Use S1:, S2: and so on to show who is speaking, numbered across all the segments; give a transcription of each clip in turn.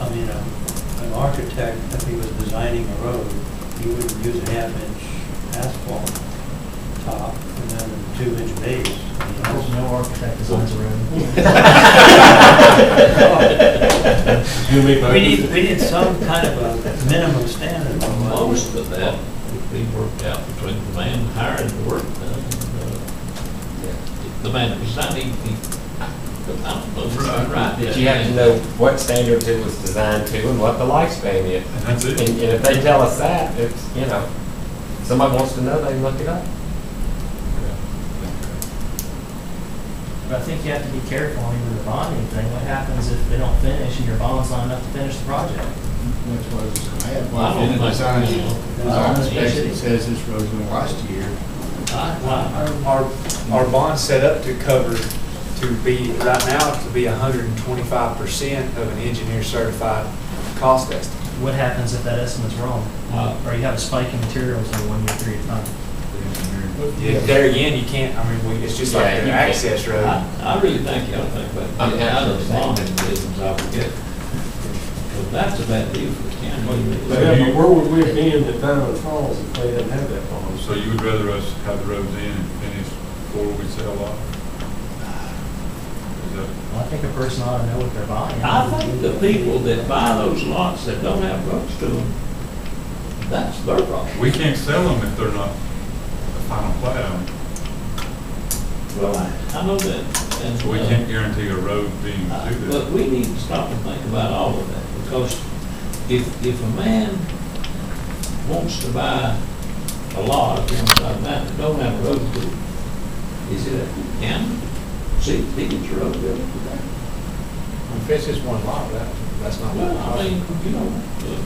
S1: I mean, a- an architect, if he was designing a road, he would use a half-inch asphalt top and then a two-inch base. I mean,
S2: There's
S1: that's-
S2: no architect designs a
S3: You make my-
S1: We need, we need some kind of a minimum standard. on what-
S3: Most of that would be worked out between the man hiring the work done and uh, the man who's not even, I don't know, if it's right.
S4: That you have to know what standards it was designed to and what the lifespan is.
S5: And that's
S4: And,
S5: it.
S4: and if they tell us that, it's, you know, somebody wants to know, they look it up.
S2: But I think you have to be careful on even the bonding thing. What happens if they don't finish and your bond's not enough to finish the project?
S6: That's what I was, I had
S3: Well, I
S6: one
S3: don't
S6: in the
S3: like-
S6: design,
S3: you know,
S6: there's on the specs that says this road's gonna last a year.
S3: I-
S7: Our, our bond's set up to cover, to be, right now, to be hundred and twenty-five percent of an engineer certified cost estimate.
S2: What happens if that estimate's wrong?
S3: Uh,
S2: Or you have a spike in materials in a one-year period of time?
S7: Yeah, There again, you can't, I mean, we- it's just like
S4: Yeah,
S7: an
S4: you can't.
S7: access
S3: I,
S7: road.
S3: I, I really think y'all think about,
S4: I'm
S3: getting out of the
S4: actually
S3: bonding business altogether. Because that's a bad deal for the
S5: But
S3: county.
S5: you-
S8: Where would we be in the Diamond Falls if they didn't have that farm?
S5: So you would rather us have the roads in and finish before we sell off? Is that-
S2: Well, I think a person ought to know what they're buying.
S3: I think the people that buy those lots that don't have roads to them, that's their problem.
S5: We can't sell them if they're not a final plat on,
S3: Well, I, I know that, and.
S5: so we
S3: uh,
S5: can't guarantee a road being
S3: Uh,
S5: to
S3: But
S5: that.
S3: we need to stop and think about all of that, because if, if a man wants to buy a lot, wants to buy a mountain, don't have a road to, it, is it a county? See, Deacon's Road, built for that.
S7: If it's just one lot, that, that's not.
S3: well, I mean, you know, uh,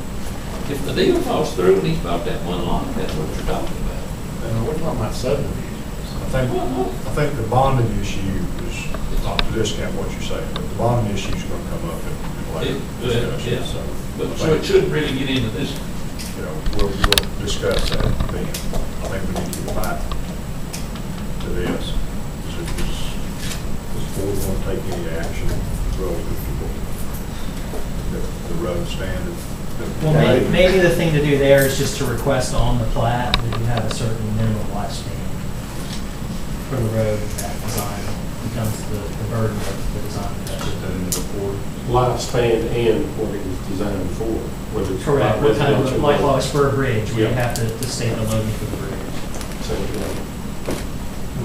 S3: if the deal falls through and he's bought that one lot, that's what you're talking about.
S6: Uh, we're talking about subdivisions.
S9: I think, I think the bonding issue is, not to discount what you're saying, but the bonding issue is going to come up in- in
S3: It-
S9: later
S3: uh, yeah.
S9: discussion, so.
S3: But,
S9: I
S3: so it
S9: think,
S3: shouldn't really get into this,
S9: You know, we'll, we'll discuss that then. I think we need to get back to this. Is it, is, does board want to take any action relative to the, the road standard?
S2: Well, may- maybe the thing to do there is just to request on the plat that you have a certain minimum lifespan for the road that design becomes the the burden of the design. of that.
S5: Put that in the report.
S8: Lifespan and what it was designed for, whether it's.
S2: Correct, what kind of,
S8: residential
S2: like
S8: or-
S2: Wallace Spur Bridge, where you
S8: Yeah.
S2: have to to state the loading for the bridge.
S8: So, you know,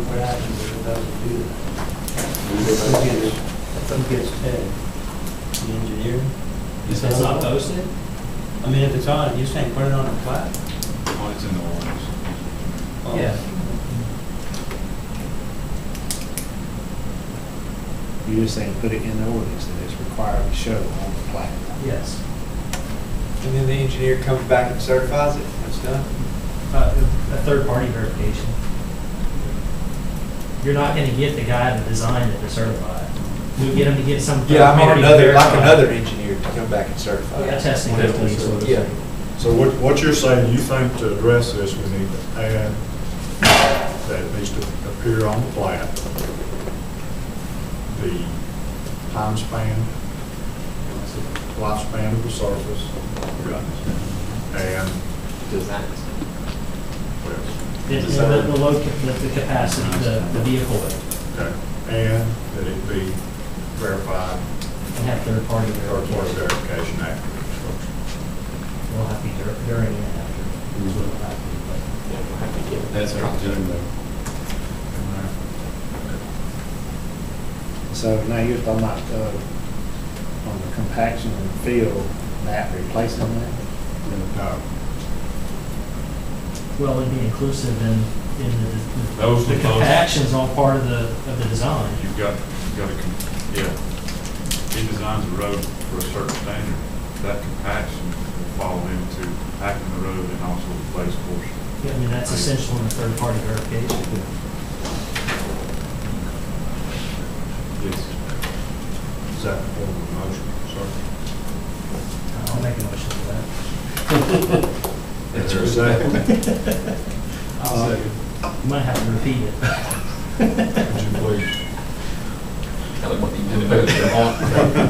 S1: What happens if it doesn't do that?
S8: we
S1: Who
S8: go back to-
S1: gets, who gets paid? The engineer?
S2: If it's not posted,
S1: I mean, if it's on, you're saying put it on a plat?
S5: Oh, it's in the ordinance.
S7: Oh.
S1: Well,
S2: Yeah.
S6: You're just saying, put it in the ordinance that it's required to show on the plat.
S2: yes.
S7: And then the engineer comes back and certifies it, and it's done.
S2: Uh, A third-party verification. You're not going to get the guy that designed it to certify it. We get him to get some third-party.
S7: Yeah, I mean, another, like
S2: verified-
S7: another engineer to come back and certify
S2: A
S7: it.
S2: testing. company.
S7: Yeah.
S9: So what, what you're saying, you think to address this, we need to add that it needs to appear on the plat, the time span, lifespan of the surface, and,
S4: Design.
S9: well,
S2: The, the, the- the load, the the capacity, the, the vehicle weight,
S9: okay, and that it be verified,
S2: and have third-party
S9: third party
S2: verification.
S9: verification after construction.
S2: We'll have to be dur- during and after. That's what we'll have to do, but-
S6: That's our doing though. So now you're talking about, uh, on the compaction and fill, that replacing that?
S9: No,
S2: Well, it'd be inclusive in, in the- the,
S5: Those
S2: the
S5: are both.
S2: compaction's all part of the, of the design.
S5: You've got, you've got to, yeah, he designs a road for a certain standard, that compaction will fall into packing the road and also the place portion.
S2: Yeah, I mean, that's essential in the third-party verification.
S5: Yes.
S9: is that the form of motion, sir?
S2: I'll make a motion for that.
S9: That's exactly.
S7: Uh,
S2: You might have to repeat it.
S9: Would you please?
S4: Tell them what you do.